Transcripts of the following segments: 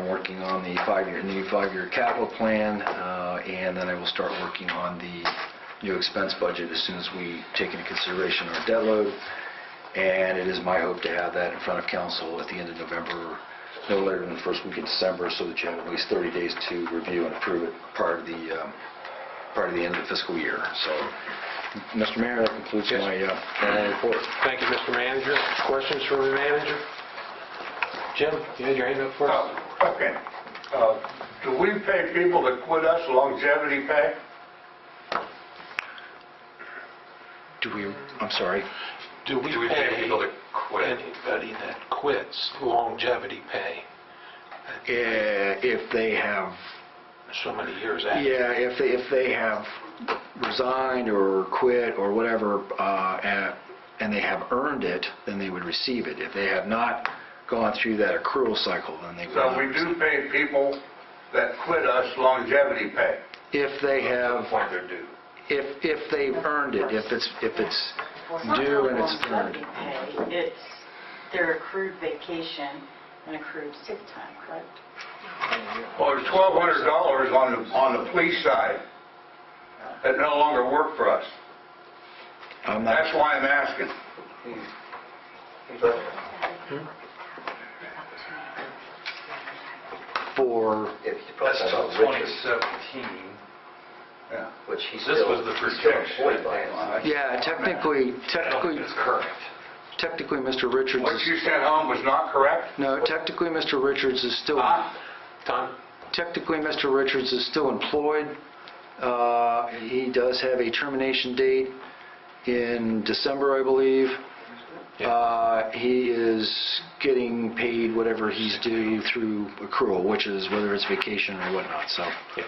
working on the five-year, new five-year capital plan, uh, and then I will start working on the new expense budget as soon as we take into consideration our debt load. And it is my hope to have that in front of council at the end of November, no later than the first week of December, so that you have at least 30 days to review and approve it prior to the, um, prior to the end of the fiscal year. So, Mr. Mayor, that concludes Yes. my uh, formal report. Thank you, Mr. Manager. Questions for the manager? Jim, you had your hand up first? Oh, Okay. Uh, Do we pay people that quit us longevity pay? Do we, I'm sorry. Do we Do we pay people to quit? Anybody that quits longevity pay Eh, If they have so many years after? Yeah, if they, if they have resigned or quit or whatever, uh, and- and they have earned it, then they would receive it. If they have not gone through that accrual cycle, then they would So not we receive do pay people that quit us longevity pay. it. If they have, Point they're due. if, if they've earned it, if it's, if it's due and it's earned. It's their accrued vacation and accrued sick time, correct? Well, there's $1,200 on the, on the police side that no longer work for us. I'm That's not, why I'm asking. for, If you That's process till it, which is- 2017. Yeah. which he's This still- was the he's still projection. employed by us. yeah, technically, I don't think technically, It's current. technically, Mr. Richards, What you is- sent home was not correct? no, technically, Mr. Richards is still Huh? Tom? Technically, Mr. Richards is still employed. Uh, He does have a termination date in December, I believe. Uh, He is getting paid whatever he's due through accrual, which is whether it's vacation or whatnot, so. Yeah.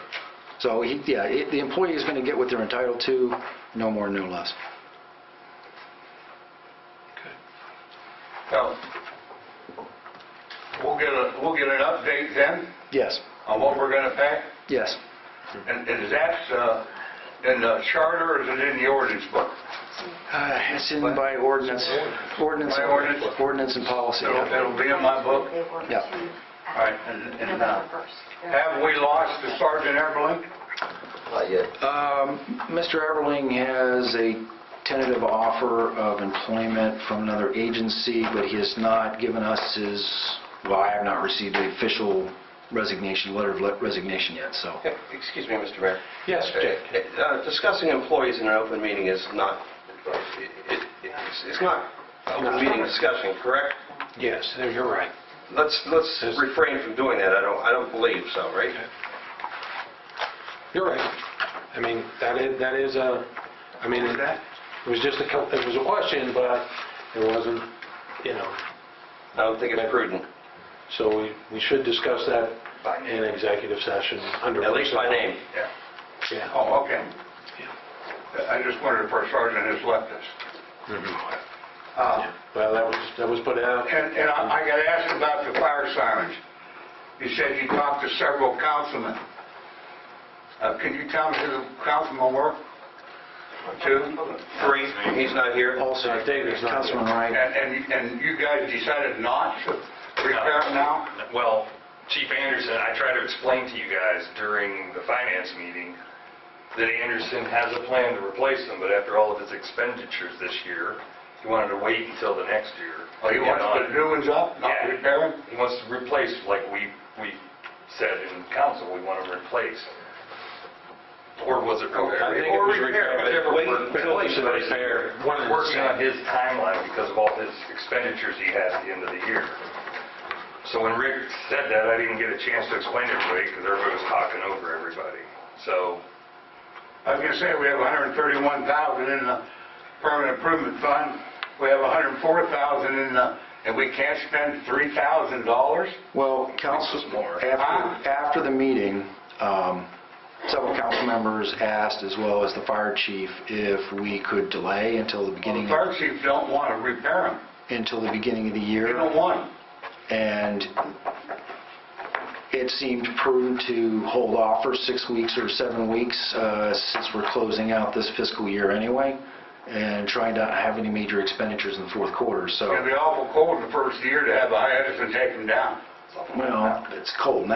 So, he- yeah, it- the employee is going to get what they're entitled to, no more, no less. So we'll get a, we'll get an update then Yes, on what we're going to pay? yes. And and is that uh, in the charter or is it in the ordinance book? Uh, It's in by ordinance, ordinance, By ordinance? ordinance and policy. It'll yeah. it'll be in my book? They were Yeah. to All right. and- and, uh, November 1st. Have we lost the Sergeant Everly? Not yet. Um, Mr. Everling has a tentative offer of employment from another agency, but he has not given us his, well, I have not received the official resignation, letter of le- resignation yet, so. Excuse me, Mr. Mayor. Yes, Jake? Uh, Discussing employees in an open meeting is not, it- it- it's it's not open meeting discussion, correct? Yes, there- you're right. Let's let's refrain from doing that, I don't I don't believe so, right? You're right. I mean, that is, that is a, I mean, it it was just a, co- it was a question, but it wasn't, you know, I don't think it's prudent, so we, we should discuss that in executive session under... at least by name. Yeah. Yeah. Oh, okay. I just wondered if our sergeant has left us. Mm-hmm. Uh, Well, that was, that was put out. And and I got asked about the fire sirens. You said you talked to several councilmen. Uh, Can you tell me who the councilmen were? Two? Three, he's not here. Also, Uh, David's not here. Councilman Wright, And- And and you guys decided not to repair it now? Well, Chief Anderson, I tried to explain to you guys during the finance meeting that Anderson has a plan to replace them, but after all of his expenditures this year, he wanted to wait until the next year. Oh, you want to put new ones up, not Yeah. repair them? He wants to replace, like we, we said in council, we want to replace. Or was it I think repair? it Or was repair, but repair, whatever. wait we're- until it's repair. One and the Working on same. his timeline because of all his expenditures he has at the end of the year. So when Rick said that, I didn't get a chance to explain it to everybody because everybody was talking over everybody. So, I was gonna say, we have 131,000 in the permanent improvement fund, we have 104,000 in the, and we can't spend $3,000? well, council, more. after, after the meeting, um, several council members asked, as well as the fire chief, if we could delay until the Well, the beginning, fire chief don't want to repair them, until the beginning of the year. they don't want them. and it seemed prudent to hold off for six weeks or seven weeks, uh, since we're closing out this fiscal year anyway, and trying to not have any major expenditures in the fourth quarter, so, It'd be awful cold the first year to have the hiatus and take them down. well, it's cold now.